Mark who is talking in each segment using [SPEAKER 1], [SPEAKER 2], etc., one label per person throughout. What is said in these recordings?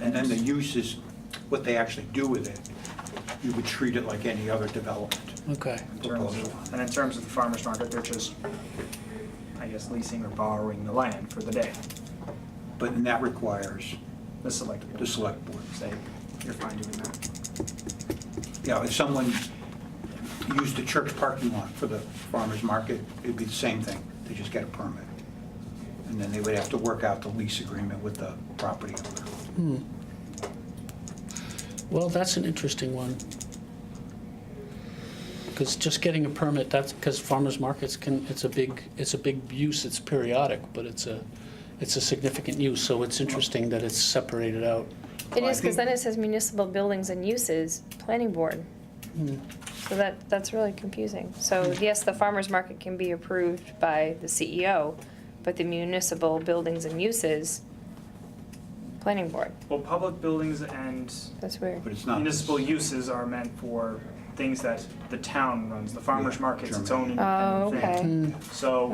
[SPEAKER 1] and then the use is what they actually do with it. You would treat it like any other development
[SPEAKER 2] Okay.
[SPEAKER 1] proposal.
[SPEAKER 3] in terms of, and in terms of the farmer's market, they're just, I guess, leasing or borrowing the land for the day,
[SPEAKER 1] But that requires
[SPEAKER 3] the select
[SPEAKER 1] the
[SPEAKER 3] board.
[SPEAKER 1] select board.
[SPEAKER 3] Say, you're fine doing that.
[SPEAKER 1] Yeah, if someone used the church parking lot for the farmer's market, it'd be the same thing. They just get a permit. And then they would have to work out the lease agreement with the property owner.
[SPEAKER 2] Well, that's an interesting one. Because just getting a permit, that's, because farmers markets can, it's a big, it's a big use, it's periodic, but it's a, it's a significant use, so it's interesting that it's separated out.
[SPEAKER 4] It is, because then it says municipal buildings and uses, planning board. So that, that's really confusing. So yes, the farmer's market can be approved by the CEO, but the municipal buildings and uses, planning board.
[SPEAKER 3] Well, public buildings and
[SPEAKER 4] That's weird.
[SPEAKER 1] But it's not.
[SPEAKER 3] municipal uses are meant for things that the town runs, the farmer's
[SPEAKER 1] Yeah,
[SPEAKER 3] market's its own
[SPEAKER 1] German.
[SPEAKER 4] Oh,
[SPEAKER 3] independent
[SPEAKER 4] okay.
[SPEAKER 3] thing.
[SPEAKER 2] Mm,
[SPEAKER 3] So,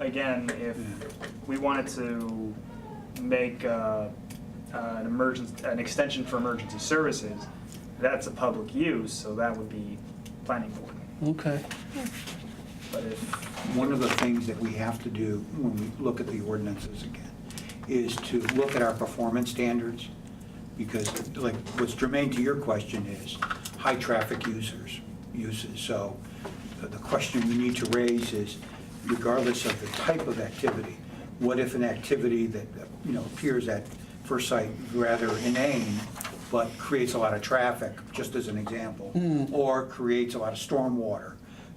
[SPEAKER 4] Okay.
[SPEAKER 3] again, if we wanted to make uh, uh, an emergency, an extension for emergency services, that's a public use, so that would be planning board.
[SPEAKER 2] Hmm, Okay,
[SPEAKER 3] But if,
[SPEAKER 1] One of the things that we have to do when we look at the ordinances again is to look at our performance standards. Because like, what's germane to your question is high traffic users, uses. So the- the question we need to raise is regardless of the type of activity, what if an activity that, you know, appears at first sight rather inane, but creates a lot of traffic, just as an example, or creates a lot of stormwater,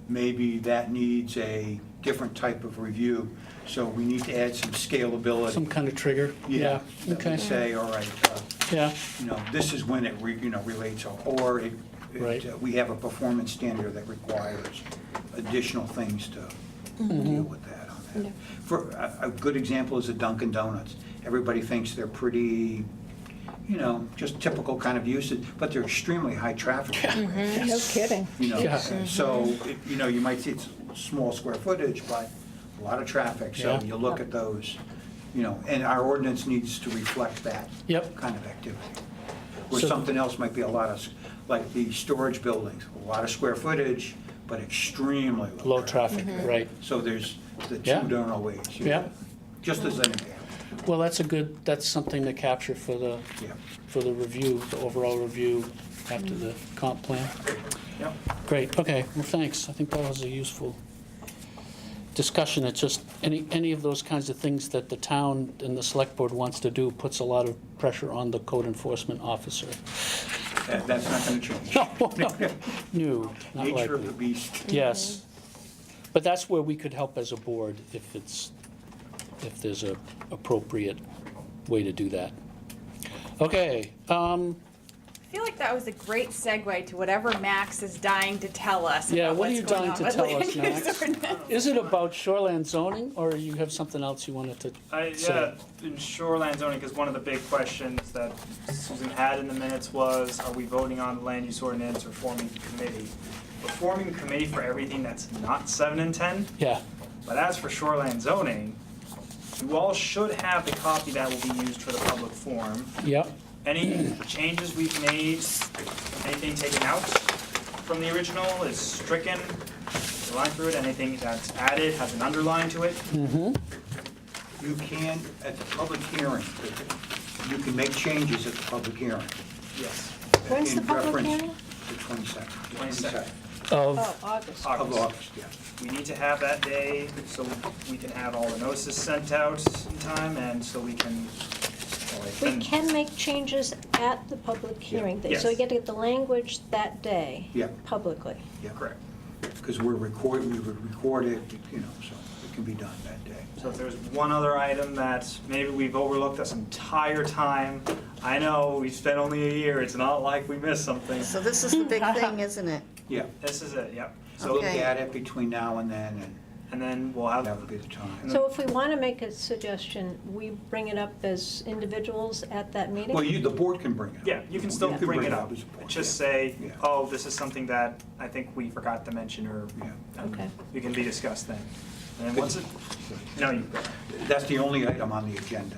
[SPEAKER 1] maybe that needs a different type of review, so we need to add some scalability.
[SPEAKER 2] some kind of trigger, yeah,
[SPEAKER 1] That we
[SPEAKER 2] okay,
[SPEAKER 1] say, all right, uh,
[SPEAKER 2] yeah,
[SPEAKER 1] you know, this is when it, re- you know, relates, or it, it,
[SPEAKER 2] Right.
[SPEAKER 1] uh, we have a performance standard that requires additional things to
[SPEAKER 2] Mm-hmm.
[SPEAKER 1] deal with that on
[SPEAKER 4] Yeah.
[SPEAKER 1] that. For, a, a good example is the Dunkin' Donuts. Everybody thinks they're pretty, you know, just typical kind of uses, but they're extremely high traffic.
[SPEAKER 5] No kidding.
[SPEAKER 1] You know,
[SPEAKER 2] Yeah.
[SPEAKER 1] so, it- you know, you might see it's small square footage, but a lot of traffic, so
[SPEAKER 2] Yeah.
[SPEAKER 1] you look at those, you know, and our ordinance needs to reflect that.
[SPEAKER 2] Yep.
[SPEAKER 1] Kind of activity. Where
[SPEAKER 2] So-
[SPEAKER 1] something else might be a lot of, s- like the storage buildings, a lot of square footage, but extremely low.
[SPEAKER 2] low traffic, right.
[SPEAKER 1] So there's the
[SPEAKER 2] Yeah.
[SPEAKER 1] two don't always.
[SPEAKER 2] Yeah.
[SPEAKER 1] Just as an example,
[SPEAKER 2] Well, that's a good, that's something to capture for the,
[SPEAKER 1] yeah.
[SPEAKER 2] for the review, the overall review after the comp plan.
[SPEAKER 3] yeah,
[SPEAKER 2] Great, okay, well, thanks. I think that was a useful discussion. It's just, any, any of those kinds of things that the town and the select board wants to do puts a lot of pressure on the code enforcement officer.
[SPEAKER 1] That- That's not gonna change.
[SPEAKER 2] No, no, no, not
[SPEAKER 1] Nature of the
[SPEAKER 2] likely.
[SPEAKER 1] beast.
[SPEAKER 2] Yes. But that's where we could help as a board if it's, if there's a appropriate way to do that. Okay, um,
[SPEAKER 6] I feel like that was a great segue to whatever Max is dying to tell us.
[SPEAKER 2] Yeah,
[SPEAKER 6] about
[SPEAKER 2] what are
[SPEAKER 6] what's
[SPEAKER 2] you dying
[SPEAKER 6] going on
[SPEAKER 2] to
[SPEAKER 6] with
[SPEAKER 2] tell
[SPEAKER 6] land
[SPEAKER 2] us,
[SPEAKER 6] use
[SPEAKER 2] Max?
[SPEAKER 6] ordinance.
[SPEAKER 2] is it about shoreland zoning or you have something else you wanted to
[SPEAKER 3] I, yeah,
[SPEAKER 2] So-
[SPEAKER 3] in shoreline zoning, because one of the big questions that Susan had in the minutes was, are we voting on the land use ordinance or forming a committee? We're forming a committee for everything that's not seven and ten,
[SPEAKER 2] Yeah,
[SPEAKER 3] But as for shoreline zoning, you all should have the copy that will be used for the public forum.
[SPEAKER 2] yep,
[SPEAKER 3] Any changes we've made, anything taken out from the original is stricken, line through it, anything that's added has an underline to it.
[SPEAKER 1] You can, at the public hearing, you can make changes at the public hearing.
[SPEAKER 3] Yes.
[SPEAKER 4] When's the
[SPEAKER 1] In
[SPEAKER 4] public hearing?
[SPEAKER 1] reference to 22nd.
[SPEAKER 3] 22nd.
[SPEAKER 2] of,
[SPEAKER 5] August.
[SPEAKER 1] Of August, yeah.
[SPEAKER 3] We need to have that day so we can have all the notices sent out in time and so we can. well, like,
[SPEAKER 5] We
[SPEAKER 3] then-
[SPEAKER 5] can make changes at the public hearing, day, so we
[SPEAKER 3] Yes.
[SPEAKER 5] get to get the language that day.
[SPEAKER 1] Yeah.
[SPEAKER 5] Publicly.
[SPEAKER 1] Yeah,
[SPEAKER 3] Correct.
[SPEAKER 1] Because we're recording, we would record it, you know, so it can be done that day.
[SPEAKER 3] So if there's one other item that maybe we've overlooked this entire time, I know we spent only a year, it's not like we missed something.
[SPEAKER 7] So this is the big thing, isn't it?
[SPEAKER 1] Yeah,
[SPEAKER 3] This is it, yep.
[SPEAKER 1] so look
[SPEAKER 7] Okay.
[SPEAKER 1] at it between now and then, and
[SPEAKER 3] And then we'll
[SPEAKER 1] that
[SPEAKER 3] have,
[SPEAKER 1] would be the time.
[SPEAKER 5] So if we want to make a suggestion, we bring it up as individuals at that meeting?
[SPEAKER 1] Well, you, the board can bring it up.
[SPEAKER 3] yeah, you can still bring it up.
[SPEAKER 1] as a board,
[SPEAKER 3] Just
[SPEAKER 1] yeah.
[SPEAKER 3] say,
[SPEAKER 1] Yeah.
[SPEAKER 3] oh, this is something that I think we forgot to mention or
[SPEAKER 1] Yeah.
[SPEAKER 3] and
[SPEAKER 5] Okay.
[SPEAKER 3] it can be discussed then. And then once it, no, you,
[SPEAKER 1] That's the only item on the agenda.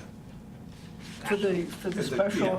[SPEAKER 8] For the, for
[SPEAKER 1] Yeah.
[SPEAKER 8] the special